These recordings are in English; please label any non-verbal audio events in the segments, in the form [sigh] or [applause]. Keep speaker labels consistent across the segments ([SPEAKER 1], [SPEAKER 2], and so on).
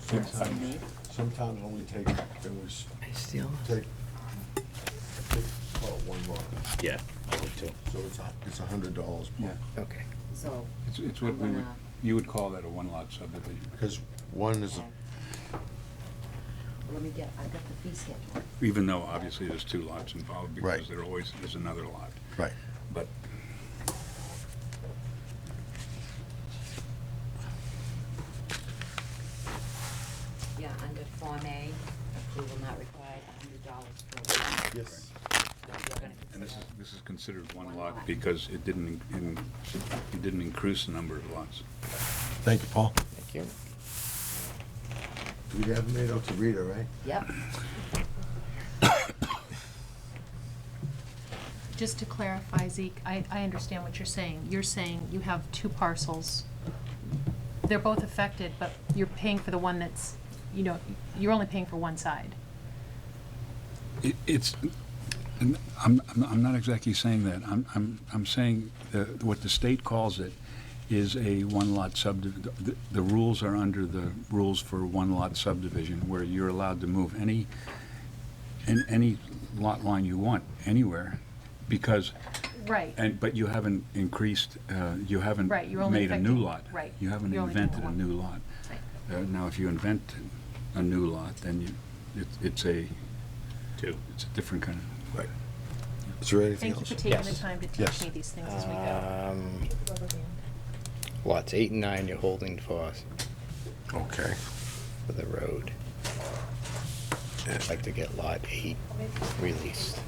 [SPEAKER 1] Sometimes, sometimes only take, it was,
[SPEAKER 2] I still.
[SPEAKER 1] take, take, well, one run.
[SPEAKER 2] Yeah.
[SPEAKER 1] So it's, a- it's a hundred dollars.
[SPEAKER 3] Yeah,
[SPEAKER 2] Okay.
[SPEAKER 4] So,
[SPEAKER 3] it's, it's what
[SPEAKER 4] I'm
[SPEAKER 3] we would,
[SPEAKER 4] gonna-
[SPEAKER 3] you would call that a one-lot subdivision.
[SPEAKER 1] Because one is,
[SPEAKER 4] okay. um, let me get, I've got the fee schedule.
[SPEAKER 3] Even though obviously there's two lots involved because
[SPEAKER 1] Right.
[SPEAKER 3] there always is another lot.
[SPEAKER 1] right,
[SPEAKER 3] But
[SPEAKER 4] Yeah, under Form A, approval not required, a hundred dollars per lot.
[SPEAKER 1] yes.
[SPEAKER 4] What you're gonna
[SPEAKER 3] and this is
[SPEAKER 4] consider.
[SPEAKER 3] this is considered one
[SPEAKER 4] One
[SPEAKER 3] lot
[SPEAKER 4] lot.
[SPEAKER 3] because it didn't in- in, it didn't increase the number of lots.
[SPEAKER 1] Thank you, Paul.
[SPEAKER 2] Thank you.
[SPEAKER 1] We haven't made out to Rita, right?
[SPEAKER 4] Yep,
[SPEAKER 5] Just to clarify, Zeke, I, I understand what you're saying. You're saying you have two parcels. They're both affected, but you're paying for the one that's, you know, you're only paying for one side.
[SPEAKER 3] It- It's, and I'm, I'm- I'm not exactly saying that. I'm, I'm, I'm saying that what the state calls it is a one-lot subdivision. The rules are under the rules for one-lot subdivision, where you're allowed to move any, an- any lot line you want, anywhere, because,
[SPEAKER 5] Right.
[SPEAKER 3] and, but you haven't increased, uh, you haven't
[SPEAKER 5] Right, you're only
[SPEAKER 3] made a new
[SPEAKER 5] affecting-
[SPEAKER 3] lot.
[SPEAKER 5] right,
[SPEAKER 3] You haven't
[SPEAKER 5] you're only doing
[SPEAKER 3] invented a
[SPEAKER 5] one.
[SPEAKER 3] new lot.
[SPEAKER 5] Right.
[SPEAKER 3] Uh, Now, if you invent a new lot, then you, it's- it's a, it's a different kind of
[SPEAKER 1] Right. Is there anything
[SPEAKER 5] Thank you
[SPEAKER 1] else?
[SPEAKER 5] for taking the
[SPEAKER 2] Yes.
[SPEAKER 5] time to
[SPEAKER 1] Yes.
[SPEAKER 5] teach me these things as we go.
[SPEAKER 2] Um, lots eight and nine you're holding for,
[SPEAKER 1] Okay.
[SPEAKER 2] for the road. I'd like to get lot eight released.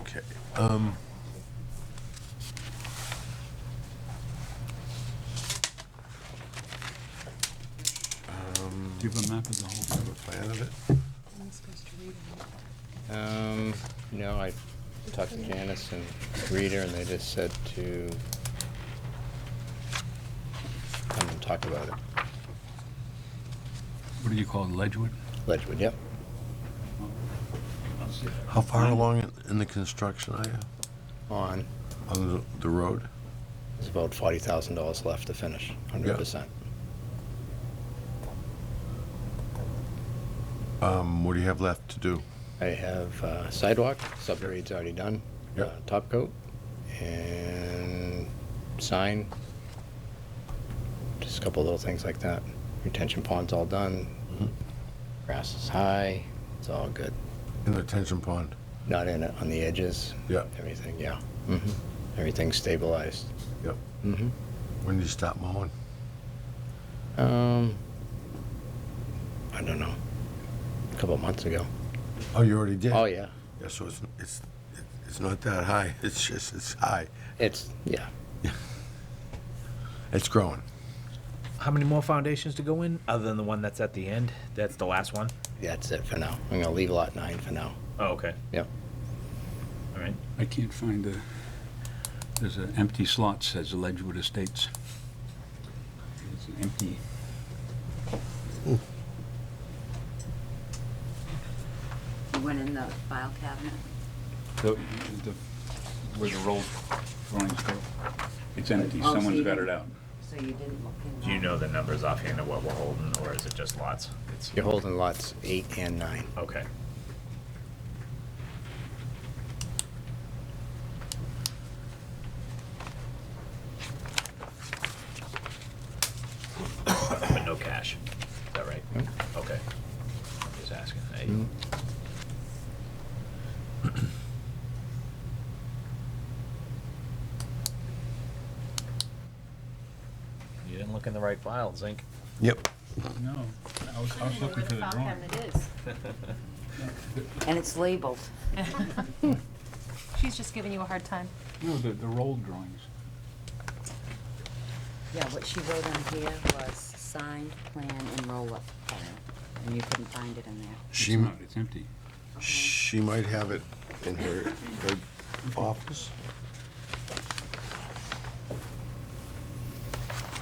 [SPEAKER 1] Okay, um. Um,
[SPEAKER 3] Do you have a map of the
[SPEAKER 1] do you have
[SPEAKER 3] whole thing?
[SPEAKER 1] a plan of it?
[SPEAKER 2] Um, no, I talked to Janice and Rita and they just said to come and talk about it.
[SPEAKER 3] What do you call it, Ledgewood?
[SPEAKER 2] Ledgewood, yep.
[SPEAKER 1] How far along in- in the construction are you
[SPEAKER 2] On,
[SPEAKER 1] on the, the road?
[SPEAKER 2] there's about forty thousand dollars left to finish, hundred percent.
[SPEAKER 1] Um, what do you have left to do?
[SPEAKER 2] I have uh, sidewalk, subgrade's already done.
[SPEAKER 1] Yep.
[SPEAKER 2] uh, Top coat and sign. Just a couple little things like that. Retention pond's all done.
[SPEAKER 1] Mhm.
[SPEAKER 2] Grass is high, it's all good.
[SPEAKER 1] In the detention pond?
[SPEAKER 2] Not in it, on the edges.
[SPEAKER 1] Yeah. Mm-hmm.
[SPEAKER 2] Everything, yeah. hmm Everything's stabilized.
[SPEAKER 1] Yep.
[SPEAKER 2] Mm-hmm.
[SPEAKER 1] When do you stop mowing?
[SPEAKER 2] Um, I don't know. A couple months ago.
[SPEAKER 1] Oh, you already did?
[SPEAKER 2] Oh, yeah.
[SPEAKER 1] Yeah, so it's, it's, it's not that high, it's just, it's high,
[SPEAKER 2] It's, yeah.
[SPEAKER 1] it's growing.
[SPEAKER 6] How many more foundations to go in, other than the one that's at the end? That's the last one?
[SPEAKER 2] That's it for now. I'm going to leave lot nine for now.
[SPEAKER 6] Oh, okay.
[SPEAKER 2] Yep.
[SPEAKER 6] All right.
[SPEAKER 3] I can't find the, there's an empty slot, says Ledgewood Estates. It's an empty.
[SPEAKER 4] you went in the file cabinet.
[SPEAKER 3] The, the- where the roll drawings go. It's empty,
[SPEAKER 4] Oh, so
[SPEAKER 3] someone's
[SPEAKER 4] you
[SPEAKER 3] got it
[SPEAKER 4] didn't-
[SPEAKER 3] out.
[SPEAKER 4] So you didn't look in.
[SPEAKER 6] Do you
[SPEAKER 4] that.
[SPEAKER 6] know the numbers offhand of what we're holding, or is it just lots? It's
[SPEAKER 2] You're holding lots eight and nine.
[SPEAKER 6] Okay. But no cash, is that right?
[SPEAKER 2] No.
[SPEAKER 6] Okay. I'm Just asking. I-
[SPEAKER 2] Mm.
[SPEAKER 6] You didn't look in the right file, Zink.
[SPEAKER 1] Yep.
[SPEAKER 3] No, I was, I was looking for the drawing.
[SPEAKER 4] And it's labeled.
[SPEAKER 5] [laughs] She's just giving you a hard time.
[SPEAKER 3] No, the, the roll drawings.
[SPEAKER 4] Yeah, what she wrote on here was signed plan and roll-up file, and you couldn't find it in there.
[SPEAKER 3] It's
[SPEAKER 1] She,
[SPEAKER 3] not, it's empty.
[SPEAKER 1] she might have it in her, her office.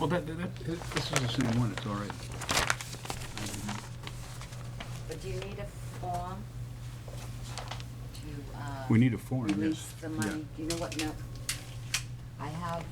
[SPEAKER 3] Well, that, that, this is the same one, it's all right.
[SPEAKER 4] But do you need a form uh, to, uh?
[SPEAKER 3] We need a form, yes.
[SPEAKER 4] Release the
[SPEAKER 3] Yeah.
[SPEAKER 4] money, do you know what, no, I have